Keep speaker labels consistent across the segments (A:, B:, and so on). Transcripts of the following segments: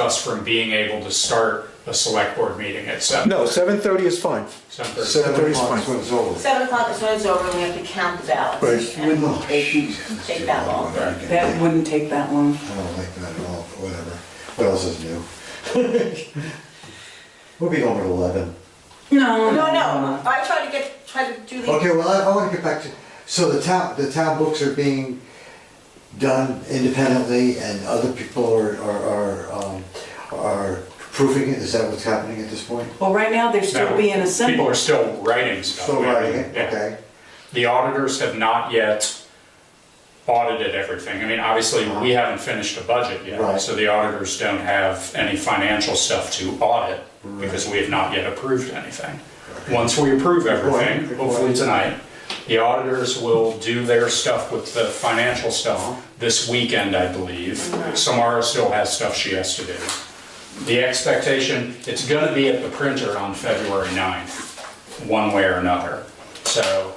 A: us from being able to start a select board meeting at seven.
B: No, 7:30 is fine.
A: Seven thirty.
B: 7:30 is
C: o'clock
B: fine.
C: is over.
D: Seven o'clock is when it's over, and we have to count the ballots.
B: Right.
D: And it
C: Oh,
D: won't take,
C: Jesus.
D: take that long.
E: That wouldn't take that long.
C: I don't like that at all, but whatever. What else is new? We'll be home at eleven.
E: No,
D: No, no, I try to get, try to do the.
C: Okay, well, I, I wanna get back to, so the town, the town books are being done independently and other people are, are, are, um, are proofing it, is that what's happening at this point?
E: Well, right now, they're still being
A: People are
E: assembled.
A: still writing stuff.
C: Still writing it,
A: Yeah.
C: okay?
A: The auditors have not yet audited everything. I mean, obviously, we haven't finished a budget yet,
C: Right.
A: so the auditors don't have any financial stuff to audit because we have not yet approved anything. Once we approve
C: Good
A: everything,
C: point.
A: hopefully tonight, the auditors will do their stuff with the financial stuff this weekend, I believe. Samara still has stuff she has to do. The expectation, it's gonna be at the printer on February 9th, one way or another. So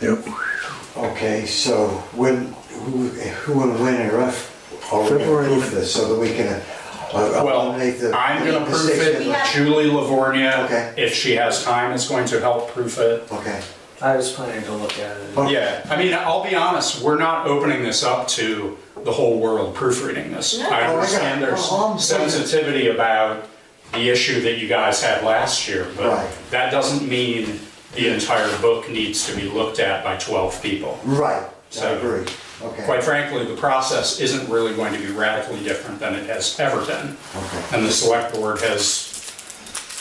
B: Yep.
C: Okay, so when, who, who and when and rough are we gonna
B: February.
C: proof this so that we can uh,
A: Well,
C: eliminate the.
A: I'm gonna
C: the
A: proof
C: six
A: it.
C: that-
D: Yeah.
A: Julie
C: Okay.
A: Lavornia, if she has time, is going to help proof it.
C: Okay.
F: I was planning to look at it.
C: Okay.
A: Yeah, I mean, I'll be honest, we're not opening this up to the whole world proofreading this. I
D: No.
C: Oh, I
A: understand
C: got it.
A: there's
C: Oh, I'm sorry.
A: sensitivity about the issue that you guys had last year, but
C: Right.
A: that doesn't mean the entire book needs to be looked at by 12 people.
C: Right, I
A: So-
C: agree, okay.
A: Quite frankly, the process isn't really going to be radically different than it has ever been.
C: Okay.
A: And the select board has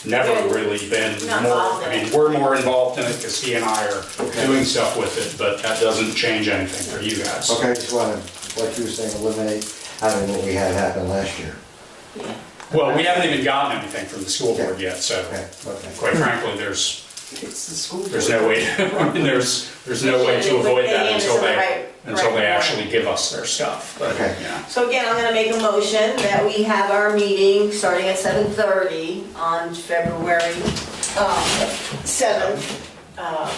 A: never really been
D: Not
A: more,
D: involved in
A: I mean,
D: it.
A: we're more involved in it because he and I are doing stuff with it, but that doesn't change anything for you guys.
C: Okay, I just wanna, like you were saying, eliminate, I don't know what we had happen last year.
D: Yeah.
A: Well, we haven't even gotten anything from the school board
C: Okay.
A: yet, so
C: Okay, okay.
A: quite frankly, there's,
E: It's the school.
A: there's no way, I mean, there's, there's no way to avoid that until they, until they actually give us their stuff, but,
C: Okay.
A: yeah.
D: So again, I'm gonna make a motion that we have our meeting starting at seven thirty on February um, seventh. uh,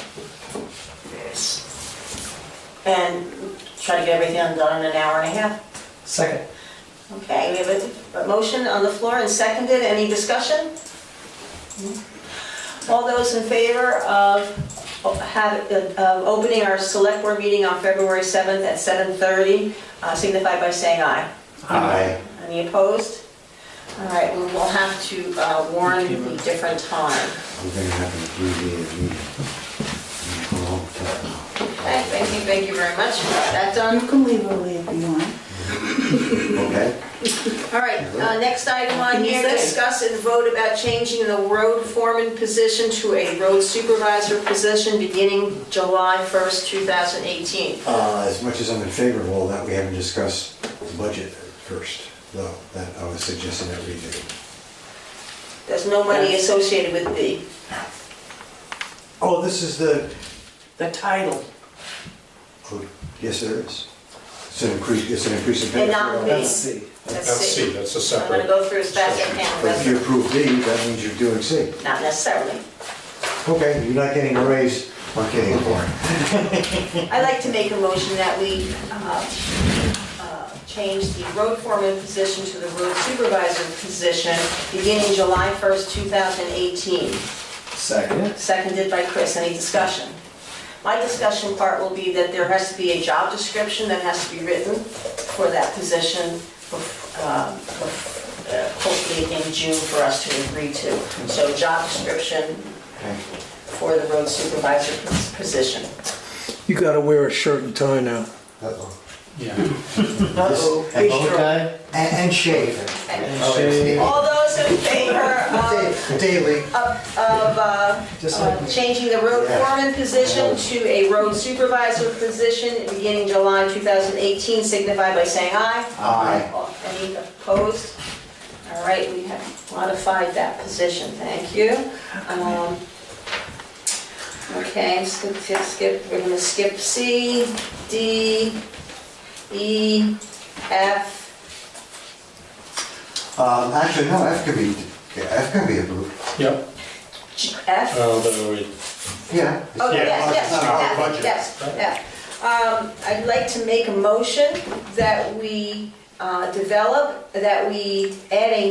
D: And try to get everything done in an hour and a half.
F: Second.
D: Okay, we have a- a motion on the floor and seconded, any discussion? All those in favor of have- of opening our select board meeting on February 7th at 7:30 uh, signify by saying aye.
A: Uh,
C: Aye.
D: Any opposed? All right, we will have to uh, warn the different time.
C: We're gonna have an abbreviated meeting. A long time.
D: Okay, thank you, thank you very much. Got That
E: You
D: done.
E: can leave early if you want.
C: Okay,
D: All right, uh, next item on
E: Can you
D: here,
E: say?
D: discuss and vote about changing the road foreman position to a road supervisor position beginning July 1st, 2018.
C: uh, as much as I'm in favor of all that, we haven't discussed the budget first, though, that I was suggesting that we do.
D: There's no money associated with B.
C: Oh, this is the,
E: The title.
C: oh, yes, there is. It's an increase, it's an increase in pay.
D: And not me.
F: Let's see.
D: That's
A: That's C,
D: C.
A: that's a
D: I'm
A: separate.
D: gonna go through as fast as I can,
C: But if you
D: but
C: approve D, that means you're doing C.
D: not necessarily.
C: Okay, you're not getting a raise or getting a board.
D: I'd like to make a motion that we uh, uh, change the road foreman position to the road supervisor position beginning July 1st, 2018.
F: Second.
D: Seconded by Chris. Any discussion? My discussion part will be that there has to be a job description that has to be written for that position, uh, hopefully in June for us to agree to. So job description
C: Okay.
D: for the road supervisor position.
B: You gotta wear a shirt and tie now.
C: Uh-oh.
A: Yeah.
C: Uh-oh.
E: Be sure.
C: And, and shave. Oh,
D: All those in favor of,
C: Da- Daily.
D: of, uh,
F: Just
D: uh,
F: like me.
D: changing the road
C: Yeah.
D: foreman position to a road supervisor position beginning July 2018, signify by saying aye.
C: Aye.
D: All- Any opposed? All right, we have modified that position, thank you. Um, Okay, skip, skip, skip, we're gonna skip C, D, E, F.
C: Um, actually, no, F could be, F could be approved.
A: Yep,
D: G- F?
A: although it
C: Yeah.
D: Oh,
A: Yeah,
D: yes, yes,
C: it's not our
D: yes,
C: budget.
D: yes, yes. Um, I'd like to make a motion that we uh, develop, that we add a